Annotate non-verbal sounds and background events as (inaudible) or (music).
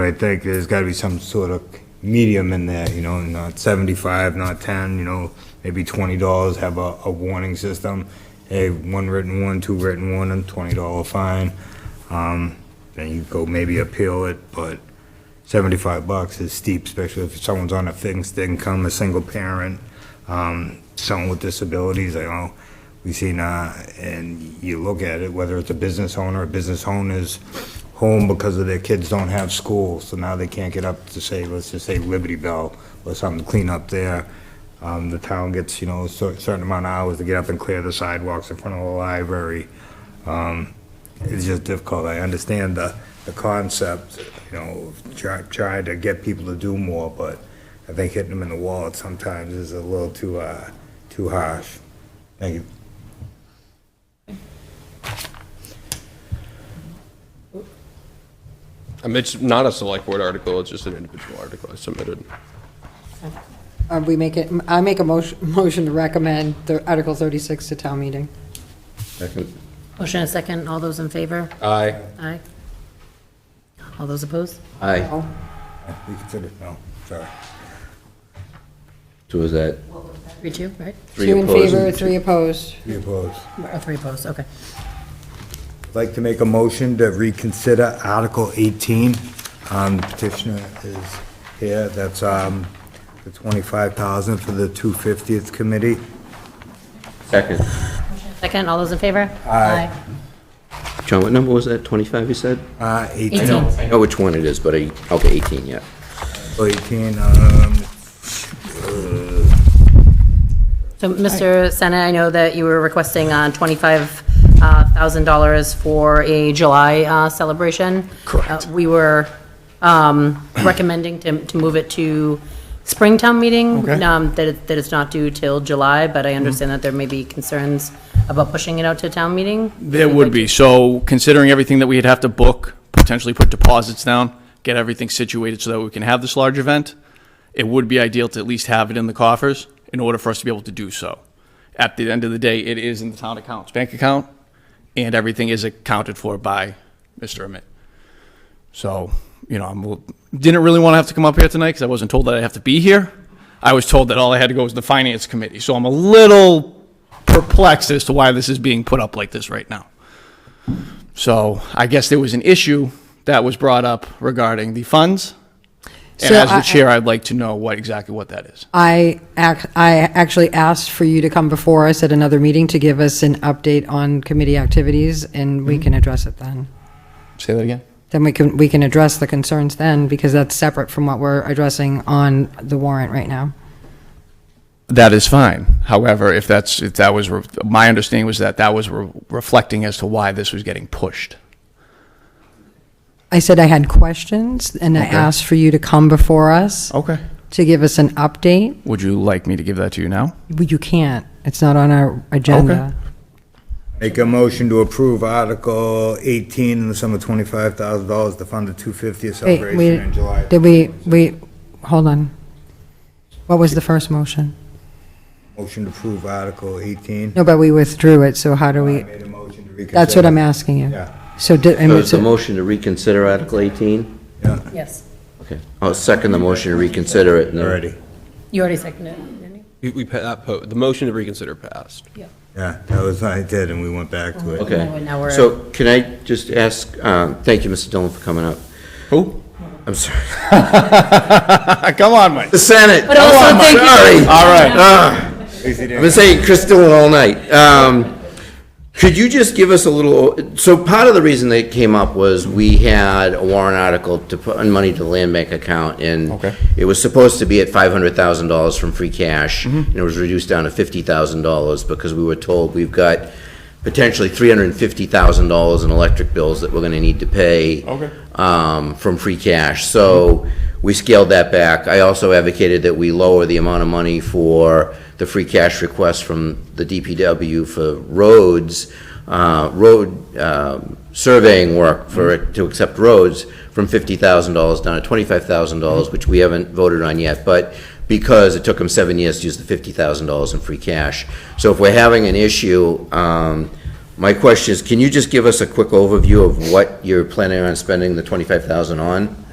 I think there's gotta be some sort of medium in there, you know, not seventy-five, not ten, you know, maybe twenty dollars, have a, a warning system. Hey, one written one, two written one, and twenty dollar fine. Um, then you go maybe appeal it, but seventy-five bucks is steep, especially if someone's on a fixed income, a single parent, um, someone with disabilities, I know. We seen, uh, and you look at it, whether it's a business owner, a business owner's home because of their kids don't have school, so now they can't get up to say, let's just say Liberty Bell or something, clean up there. Um, the town gets, you know, a cer- certain amount of hours to get up and clear the sidewalks in front of the library it's just difficult. I understand the, the concept, you know, of try, try to get people to do more, but I think hitting them in the wallet sometimes is a little too, uh, too harsh. Thank you. I mean, It's not a select board article, it's just an individual article I submitted. Uh, We make it, I make a motion, (laughs) motion to recommend the Article 36 to town meeting. Motion and a second, all those in favor? Aye. Aye. All those opposed? Aye. Oh, We consider, no, sorry. So is that Three, two, right? three Two in opposed? favor, and two- three opposed. Be opposed. Or three opposed, okay. I'd like to make a motion to reconsider Article 18. Um, Petitioner is here, that's um, the 25,000 for the 250th committee. Second. Second, all those in favor? Aye. John, what number was that? 25, you said? Uh, 18. Eighteen. I know which one it is, but I, okay, 18, yeah. 18, Oh, um, So, Mr. Senna, I know that you were requesting uh, $25,000 for a July uh, celebration. Correct. We were um, recommending to to move it to Springtown meeting, um, that it- that it's not due till July, but I understand that there may be concerns about pushing it out to town meeting. There would be. So considering everything that we'd have to book, potentially put deposits down, get everything situated so that we can have this large event, it would be ideal to at least have it in the coffers in order for us to be able to do so. At the end of the day, it is in the town accounts, bank account, and everything is accounted for by Mr. Amit. So, you know, I didn't really want to have to come up here tonight because I wasn't told that I have to be here. I was told that all I had to go was the finance committee. So I'm a little perplexed as to why this is being put up like this right now. So I guess there was an issue that was brought up regarding the funds. And So as I- the chair, I'd like to know what, exactly what that is. I, ac- I actually asked for you to come before us at another meeting to give us an update on committee activities, and Mm-hmm. we can address it then. Say that again? Then we can, we can address the concerns then, because that's separate from what we're addressing on the warrant right now. That is fine. However, if that's, if that was, re- my understanding was that that was re- reflecting as to why this was getting pushed. I said I had questions, and I Okay. asked for you to come before us Okay. to give us an update. Would you like me to give that to you now? Well, You can't. It's not on our agenda. Make a motion to approve Article 18 in the sum of $25,000 to fund the 250th Wait, celebration in July. we, did we, we, hold on. What was the first motion? Motion to approve Article 18. No, but we withdrew it, so how do I we, made a motion to reconsider. that's what I'm asking you. Yeah, So did, I So mean, Uh, is the so- motion to reconsider Article 18? yeah, Yes, Okay. I'll second the motion to reconsider it. and then- already. you already seconded it, didn't you? We, we, pa- that po- the motion to reconsider passed. Yeah, that was what I did, and we went back to it. Okay. Now we're- So can I just ask, um, thank you, Mr. Dillon, for coming up. Who? I'm sorry. (laughs) (laughs) Come on, Mike. The Senate. But also Oh, I'm thank you- Sorry. Uh, All right. I've been saying Chris Dillon all night. Um, could you just give us a little, so part of the reason they came up was we had a warrant article to put on money to the land bank account and Okay. it was supposed to be at five hundred thousand dollars from free cash Mm-hmm. and it was reduced down to fifty thousand dollars because we were told we've got potentially three hundred and fifty thousand dollars in electric bills that we're gonna need to pay Okay. Mm-hmm. um, from free cash. So we scaled that back. I also advocated that we lower the amount of money for the free cash request from the DPW for roads, uh, road um, surveying work for, it to accept roads from $50,000 down to $25,000, which we haven't voted on yet. But because it took them seven years to use the $50,000 in free cash. So if we're having an issue, um, my question is, can you just give us a quick overview of what you're planning on spending the 25,000 on?